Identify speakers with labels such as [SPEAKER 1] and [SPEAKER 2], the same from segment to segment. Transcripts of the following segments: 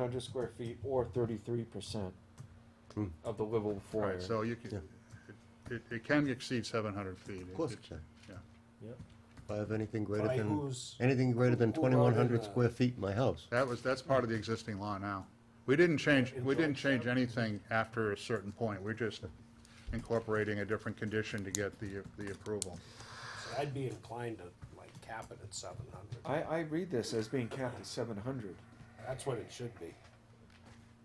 [SPEAKER 1] hundred square feet or thirty-three percent
[SPEAKER 2] Hmm.
[SPEAKER 1] of the livable floor
[SPEAKER 3] Right,
[SPEAKER 1] area.
[SPEAKER 3] so you can, it, it can exceed seven hundred feet.
[SPEAKER 2] Of course it can.
[SPEAKER 3] Yeah.
[SPEAKER 4] Yep.
[SPEAKER 2] If I have anything greater
[SPEAKER 4] By
[SPEAKER 2] than,
[SPEAKER 4] whose-
[SPEAKER 2] anything greater than
[SPEAKER 4] who- who wrote
[SPEAKER 2] twenty-one
[SPEAKER 4] it,
[SPEAKER 2] hundred
[SPEAKER 4] uh,
[SPEAKER 2] square feet in my house.
[SPEAKER 3] That was, that's part of the existing law now. We didn't change, we didn't change anything after a certain point. We're just incorporating a different condition to get the, the approval.
[SPEAKER 4] so I'd be inclined to like cap it at seven hundred.
[SPEAKER 1] I, I read this as being capped at seven hundred.
[SPEAKER 4] That's what it should be.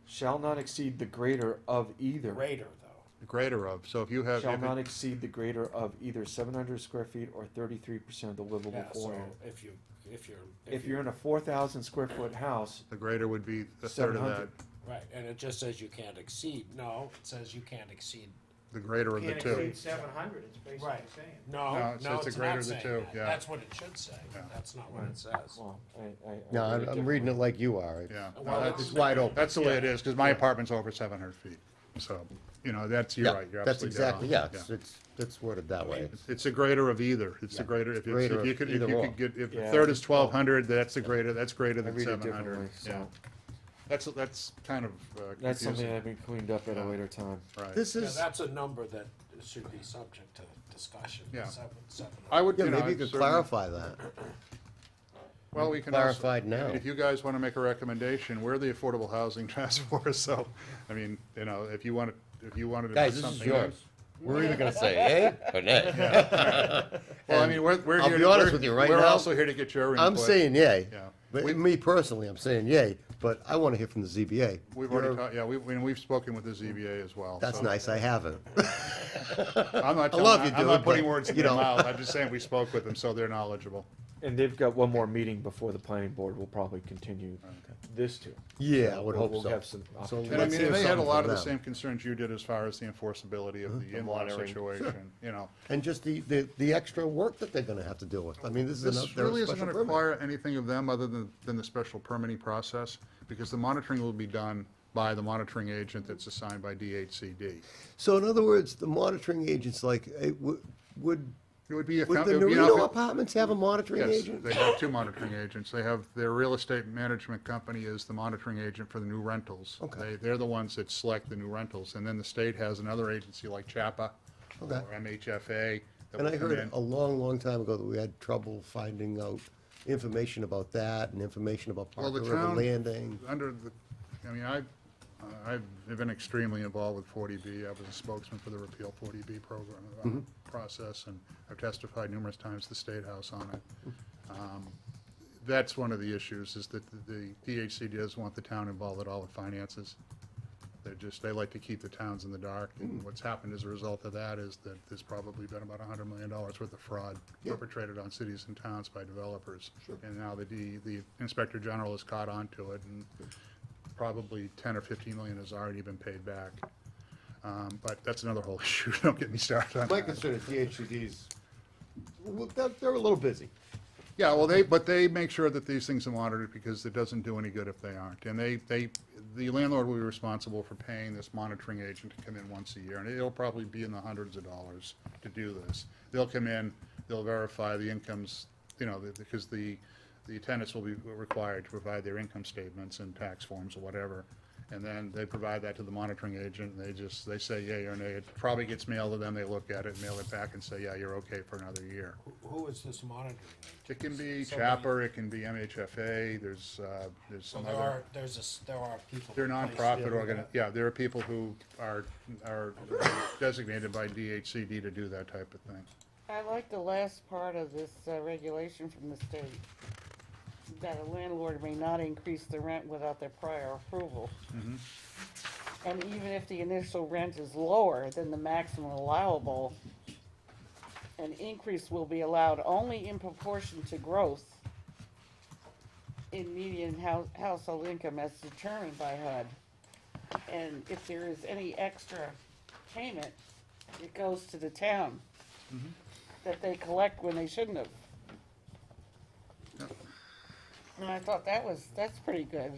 [SPEAKER 1] Shall not exceed the greater of either.
[SPEAKER 4] Greater though.
[SPEAKER 3] Greater of, so if you have,
[SPEAKER 1] Shall
[SPEAKER 3] if
[SPEAKER 1] not
[SPEAKER 3] it-
[SPEAKER 1] exceed the greater of either seven hundred square feet or thirty-three percent of the livable
[SPEAKER 4] Yeah,
[SPEAKER 1] floor
[SPEAKER 4] so
[SPEAKER 1] area.
[SPEAKER 4] if you, if you're.
[SPEAKER 1] If you're in a four thousand square foot house,
[SPEAKER 3] the greater would be a third of that,
[SPEAKER 1] 700.
[SPEAKER 4] Right, and it just says you can't exceed. No, it says you can't exceed.
[SPEAKER 3] the greater of the
[SPEAKER 5] Can't
[SPEAKER 3] two.
[SPEAKER 5] exceed seven hundred, it's basically
[SPEAKER 4] Right.
[SPEAKER 5] saying.
[SPEAKER 3] No,
[SPEAKER 4] No,
[SPEAKER 3] it
[SPEAKER 4] no,
[SPEAKER 3] says the
[SPEAKER 4] it's
[SPEAKER 3] greater
[SPEAKER 4] not
[SPEAKER 3] of the
[SPEAKER 4] saying
[SPEAKER 3] two,
[SPEAKER 4] that.
[SPEAKER 3] yeah.
[SPEAKER 4] That's what it should say.
[SPEAKER 3] Yeah.
[SPEAKER 4] That's not what it says.
[SPEAKER 1] well, I, I. I
[SPEAKER 2] No,
[SPEAKER 1] read
[SPEAKER 2] I'm, I'm reading it
[SPEAKER 1] differently.
[SPEAKER 2] like you are.
[SPEAKER 3] Yeah.
[SPEAKER 2] It's-
[SPEAKER 4] Well,
[SPEAKER 2] It's wide open.
[SPEAKER 3] That's the way it is, because my apartment's over seven hundred feet. So, you know, that's, you're
[SPEAKER 2] Yeah,
[SPEAKER 3] right, you're
[SPEAKER 2] That's
[SPEAKER 3] absolutely dead
[SPEAKER 2] exactly,
[SPEAKER 3] on.
[SPEAKER 2] yeah, it's, it's, it's worded that way.
[SPEAKER 3] It's- It's the greater of either. It's the
[SPEAKER 2] Yeah.
[SPEAKER 3] greater, if it's-
[SPEAKER 2] Greater
[SPEAKER 3] if you
[SPEAKER 2] of
[SPEAKER 3] could, if
[SPEAKER 2] either
[SPEAKER 3] you
[SPEAKER 2] or.
[SPEAKER 3] could get, if the
[SPEAKER 1] Yeah.
[SPEAKER 3] third is twelve hundred, that's the greater, that's greater
[SPEAKER 1] I
[SPEAKER 3] than
[SPEAKER 1] read it
[SPEAKER 3] seven
[SPEAKER 1] differently,
[SPEAKER 3] hundred. Yeah.
[SPEAKER 1] so,
[SPEAKER 3] That's, that's kind of uh,
[SPEAKER 1] that's something
[SPEAKER 3] confusing.
[SPEAKER 1] that can be cleaned up at a later time.
[SPEAKER 3] Right.
[SPEAKER 2] This
[SPEAKER 4] Yeah,
[SPEAKER 2] is,
[SPEAKER 4] that's a number that should be subject to discussion.
[SPEAKER 3] Yeah.
[SPEAKER 4] Seven, seven
[SPEAKER 3] I
[SPEAKER 4] hundred.
[SPEAKER 3] would,
[SPEAKER 2] yeah,
[SPEAKER 3] you know.
[SPEAKER 2] maybe you could
[SPEAKER 3] certainly-
[SPEAKER 2] clarify that.
[SPEAKER 3] Well, we can also.
[SPEAKER 2] Clarified now.
[SPEAKER 3] If you guys want to make a recommendation, we're the Affordable Housing Task Force, so, I mean, you know, if you want to, if you wanted to. do
[SPEAKER 2] Guys, this is
[SPEAKER 3] something
[SPEAKER 2] yours.
[SPEAKER 3] else-
[SPEAKER 2] We're either gonna say yay or nay.
[SPEAKER 3] Well, I mean, we're, we're.
[SPEAKER 2] I'll
[SPEAKER 3] here
[SPEAKER 2] be
[SPEAKER 3] to-
[SPEAKER 2] honest
[SPEAKER 3] we're-
[SPEAKER 2] with you, right
[SPEAKER 3] We're
[SPEAKER 2] now,
[SPEAKER 3] also here to get your input.
[SPEAKER 2] I'm saying yay.
[SPEAKER 3] Yeah.
[SPEAKER 2] But
[SPEAKER 3] We-
[SPEAKER 2] me personally, I'm saying yay, but I wanna hear from the ZBA.
[SPEAKER 3] We've already,
[SPEAKER 2] You're-
[SPEAKER 3] talked. yeah, we, and we've spoken with the ZBA as well.
[SPEAKER 2] That's
[SPEAKER 3] so-
[SPEAKER 2] nice, I haven't.
[SPEAKER 3] I'm not,
[SPEAKER 2] I love
[SPEAKER 3] telling-
[SPEAKER 2] you,
[SPEAKER 3] I'm not
[SPEAKER 2] dude,
[SPEAKER 3] putting
[SPEAKER 2] but,
[SPEAKER 3] words in
[SPEAKER 2] you
[SPEAKER 3] their
[SPEAKER 2] know.
[SPEAKER 3] mouth, I'm just saying we spoke with them, so they're knowledgeable.
[SPEAKER 1] And they've got one more meeting before the planning board will probably continue this too.
[SPEAKER 2] Yeah, I would
[SPEAKER 1] We'll-
[SPEAKER 2] hope
[SPEAKER 1] we'll
[SPEAKER 2] so.
[SPEAKER 1] have some
[SPEAKER 2] So
[SPEAKER 1] opportunity.
[SPEAKER 3] And I
[SPEAKER 2] let's
[SPEAKER 3] mean,
[SPEAKER 2] hear
[SPEAKER 3] they had a
[SPEAKER 2] something
[SPEAKER 3] lot of the
[SPEAKER 2] from them.
[SPEAKER 3] same concerns you did as far as the enforceability of the in-law
[SPEAKER 1] monitoring.
[SPEAKER 3] situation, you know.
[SPEAKER 2] And just the, the, the extra work that they're gonna have to deal with. I mean, this is
[SPEAKER 3] This
[SPEAKER 2] another,
[SPEAKER 3] really
[SPEAKER 2] they're a
[SPEAKER 3] isn't
[SPEAKER 2] special
[SPEAKER 3] gonna
[SPEAKER 2] permit.
[SPEAKER 3] require anything of them other than, than the special permitting process, because the monitoring will be done by the monitoring agent that's assigned by DHCD.
[SPEAKER 2] So in other words, the monitoring agents, like, it would, would,
[SPEAKER 3] It would be. a
[SPEAKER 2] would
[SPEAKER 3] com-
[SPEAKER 2] the
[SPEAKER 3] it would be an outfit-
[SPEAKER 2] Norino apartments have a monitoring
[SPEAKER 3] Yes,
[SPEAKER 2] agent?
[SPEAKER 3] they have two monitoring agents. They have, their real estate management company is the monitoring agent for the new rentals.
[SPEAKER 2] Okay.
[SPEAKER 3] They, they're the ones that select the new rentals, and then the state has another agency like CHAPA or
[SPEAKER 2] Okay.
[SPEAKER 3] MHFA. that
[SPEAKER 2] And
[SPEAKER 3] will
[SPEAKER 2] I
[SPEAKER 3] come
[SPEAKER 2] heard
[SPEAKER 3] in.
[SPEAKER 2] a long, long time ago that we had trouble finding out information about that and information about
[SPEAKER 3] Well,
[SPEAKER 2] Parker
[SPEAKER 3] the
[SPEAKER 2] River
[SPEAKER 3] town-
[SPEAKER 2] Landing.
[SPEAKER 3] Under the, I mean, I, I've been extremely involved with 40B. I was a spokesman for the repeal 40B program, uh, process, and I've testified numerous times to the State House on it. Um, That's one of the issues, is that the the DHC does want the town involved at all with finances. They're just, they like to keep the towns in the dark, and
[SPEAKER 2] Hmm.
[SPEAKER 3] what's happened as a result of that is that there's probably been about hundred million dollars worth of fraud perpetrated on cities and towns by developers. And now the D, the Inspector General has caught on to it, and probably ten or fifteen million has already been paid back. Um, but that's another whole issue, don't get me started on
[SPEAKER 2] My
[SPEAKER 3] that.
[SPEAKER 2] concern is DHCD's, well, they're, they're a little busy.
[SPEAKER 3] Yeah, well, they, but they make sure that these things are monitored because it doesn't do any good if they aren't. And they, they, the landlord will be responsible for paying this monitoring agent to come in once a year, and it'll probably be in the hundreds of dollars to do this. They'll come in, they'll verify the incomes, you know, the- because the, the tenants will be required to provide their income statements and tax forms or whatever. And then they provide that to the monitoring agent, and they just, they say yay or nay. It probably gets mailed to them, they look at it, mail it back and say, yeah, you're okay for another year.
[SPEAKER 4] Who- Who is this monitoring?
[SPEAKER 3] It can be
[SPEAKER 4] Somebody-
[SPEAKER 3] Chopper, it can be MHFA, there's, uh, there's
[SPEAKER 4] So
[SPEAKER 3] some
[SPEAKER 4] there
[SPEAKER 3] other,
[SPEAKER 4] are, there's a, s- there are people.
[SPEAKER 3] they're
[SPEAKER 4] placed
[SPEAKER 3] nonprofit
[SPEAKER 4] there.
[SPEAKER 3] organ, yeah, there are people who are, are designated by DHCD to do that type of thing.
[SPEAKER 6] I like the last part of this uh, regulation from the state, that a landlord may not increase the rent without their prior approval. And even if the initial rent is lower than the maximum allowable, an increase will be allowed only in proportion to growth in median hou- household income as determined by HUD. And if there is any extra payment, it goes to the town that they collect when they shouldn't have. And I thought that was, that's pretty good.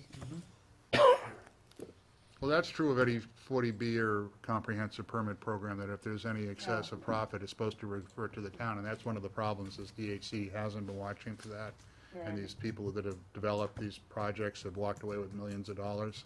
[SPEAKER 3] Well, that's true of any forty B or comprehensive permit program, that if there's any excess of profit, it's supposed to refer to the town, and that's one of the problems, is DHC hasn't been watching for that. And these people that have developed these projects have walked away with millions of dollars.